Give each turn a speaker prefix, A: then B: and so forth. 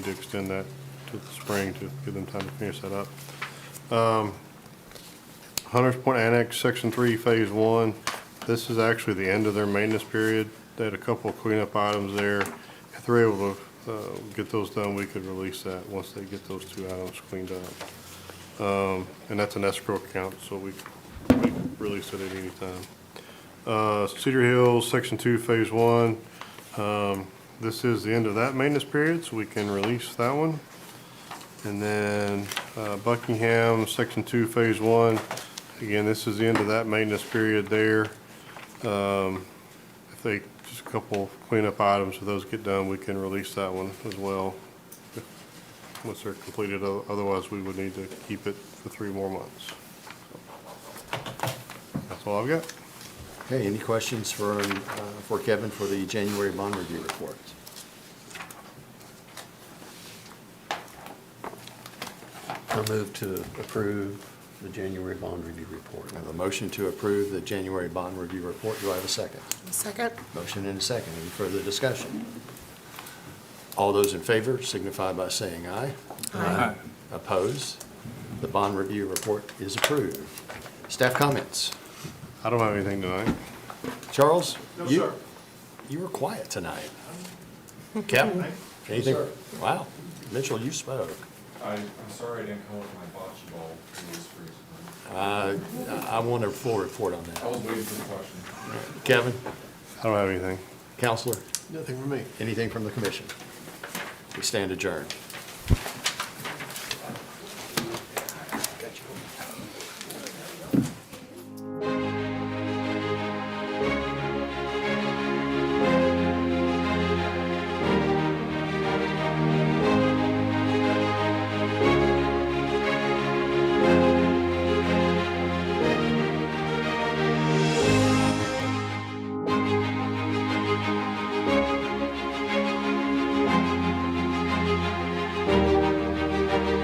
A: to extend that to the spring to give them time to finish that up. Um, Hunters Point Annex, Section 3, Phase 1, this is actually the end of their maintenance period. They had a couple of cleanup items there. If they're able to uh, get those done, we could release that once they get those two items cleaned up. Um, And that's an escrow account, so we we can release it at any time. Uh, Cedar Hills, Section 2, Phase 1, um, This is the end of that maintenance period, so we can release that one. And then uh, Buckingham, Section 2, Phase 1. Again, this is the end of that maintenance period there. Um, If they, just a couple cleanup items, if those get done, we can release that one as well. Once they're completed, O- otherwise we would need to keep it for three more months. So, That's all I've got.
B: Okay, any questions for, um, uh, for Kevin for the January bond review report?
C: I move to approve the January bond review report.
B: I have a motion to approve the January bond review report. Do I have a second?
D: Second?
B: Motion and a second. Any further discussion? All those in favor signify by saying aye.
D: Aye.
B: Opposed? The bond review report is approved. Staff comments?
A: I don't have anything tonight.
B: Charles?
E: No,
B: you-
E: sir.
B: You were quiet tonight. Kevin? Anything?
E: sir.
B: Wow. Mitchell, you spoke.
E: I, I'm sorry I didn't come up with my bocce ball rules for you.
B: Uh, I I want a full report on
E: I
B: that.
E: was waiting for the question.
B: Kevin?
A: I don't have anything.
B: Counselor?
C: Nothing for me.
B: Anything from the commission? We stand adjourned.